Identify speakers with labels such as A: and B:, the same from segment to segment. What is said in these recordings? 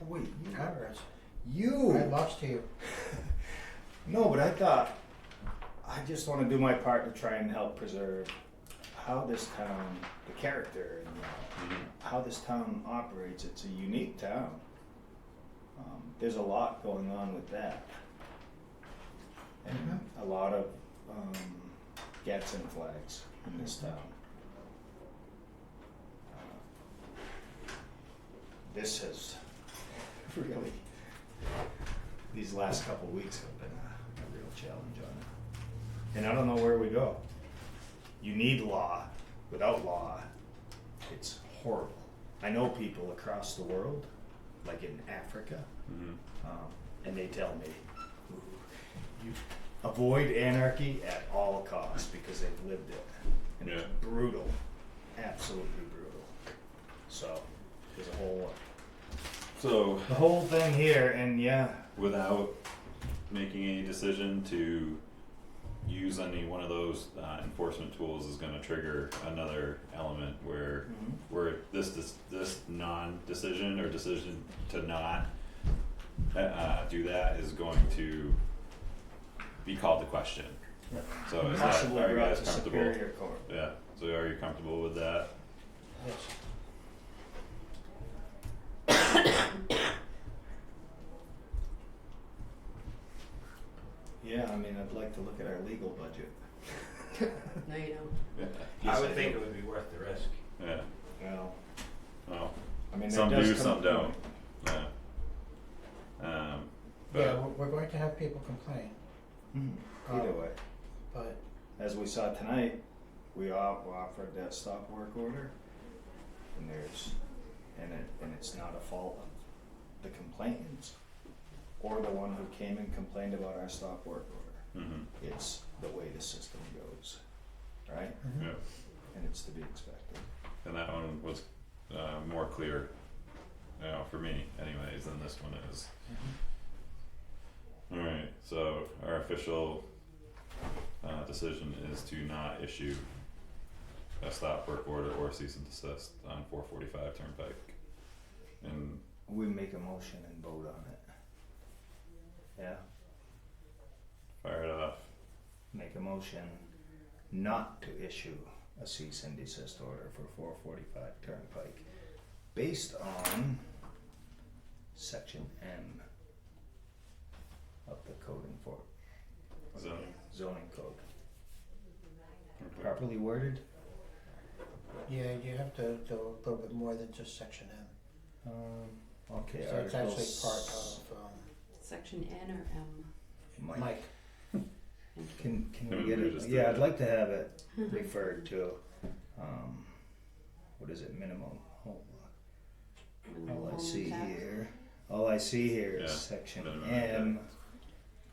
A: wait, you
B: I
A: are us. You.
B: I lost you.
A: No, but I thought, I just want to do my part to try and help preserve how this town, the character, and uh, how this town operates. It's a unique town. Um, there's a lot going on with that. And a lot of um, gets and flags in this town. Uh, This has really these last couple of weeks have been a, a real challenge on it. And I don't know where we go. You need law. Without law, it's horrible. I know people across the world, like in Africa,
C: Mhm.
A: um, and they tell me, you avoid anarchy at all costs because they've lived it. And it's
C: Yeah.
A: brutal, absolutely brutal. So, there's a whole,
C: So,
A: the whole thing here, and yeah,
C: without making any decision to use any one of those uh, enforcement tools is going to trigger another element where
A: Mhm.
C: where this this, this non decision or decision to not uh, uh, do that is going to be called to question.
A: Yeah.
C: So is that,
A: possibly
C: are you
A: brought
C: guys
A: to
C: comfortable?
A: Superior Court.
C: Yeah. So are you comfortable with that?
B: Yes.
A: Yeah, I mean, I'd like to look at our legal budget.
D: No, you don't.
C: Yeah.
E: I would think it would be worth the risk.
C: Yeah.
A: Well,
C: Well,
A: I mean, there
C: some
A: does
C: do,
A: come
C: some
A: a
C: don't.
A: point-
C: Yeah. Um, but
B: Yeah, we're, we're going to have people complain, Uh,
A: Mhm. Either way,
B: but
A: as we saw tonight, we all were offered that stop work order, and there's, and it, and it's not a fault of the complainants or the one who came and complained about our stop work order.
C: mhm,
A: It's the way the system goes, right?
B: mm-hmm,
C: yeah.
A: And it's to be expected.
C: And that one was uh, more clear, you know, for me anyways, than this one is.
B: mm-hmm.
C: Alright, so our official uh decision is to not issue a stop work order or cease and desist on four forty five Turnpike. And
A: We make a motion and vote on it. Yeah?
C: fire it off.
A: make a motion not to issue a cease and desist order for four forty-five Turnpike based on section M of the code enfor-
C: Zoning.
A: zoning code,
C: Okay.
A: properly worded?
B: yeah, you have to do a little bit more than just section M.
A: Um, okay,
B: So it's
A: Article
B: actually part
A: s-
B: of, um,
D: Section N or M?
A: Mike,
B: Mike,
A: can, can we
C: Can
A: get
C: we
A: it,
C: just
A: yeah,
C: do
A: I'd
C: it?
A: like to have it referred to, um, what is it, minimum, hold on. All Oh, I see here, all I see here is
C: Yeah,
A: section
C: minimum
A: M.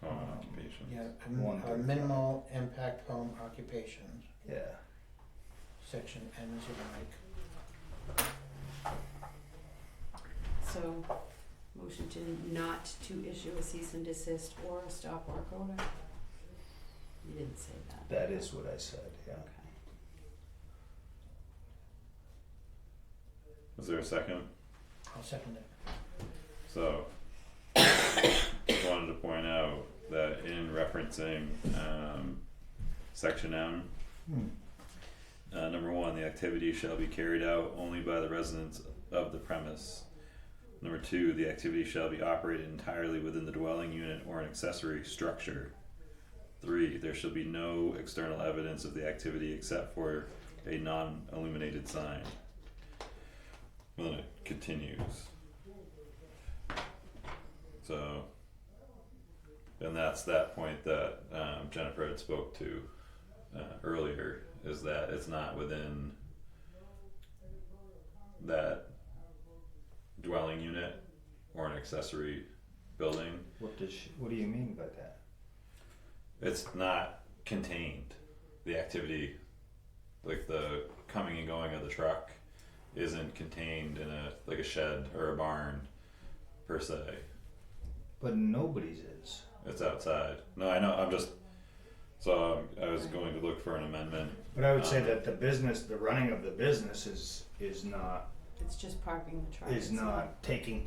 C: Home
A: Um,
C: occupation.
B: yeah, m- uh,
A: Wonderful.
B: minimal impact home occupations,
A: Yeah,
B: section M is your Mike.
D: So, motion to not to issue a cease and desist or a stop work order? You didn't say that.
A: that is what I said, yeah.
D: Okay.
C: Is there a second?
B: I'll second it.
C: So, just wanted to point out that in referencing um, section M, uh, number one, the activity shall be carried out only by the residents of the premise. Number two, the activity shall be operated entirely within the dwelling unit or an accessory structure. Three, there shall be no external evidence of the activity except for a non-illuminated sign. Well, then it continues. So, and that's that point that um, Jennifer had spoke to uh, earlier is that it's not within that dwelling unit or an accessory building.
A: What does, she- what do you mean by that?
C: It's not contained. The activity, like the coming and going of the truck, isn't contained in a like a shed or a barn per se.
A: But nobody's is.
C: It's outside. No, I know. I'm just. So um, I was going to look for an amendment.
A: But I would say that the business, the running of the business is, is not,
D: It's just parking the truck.
A: is
D: it's not
A: not taking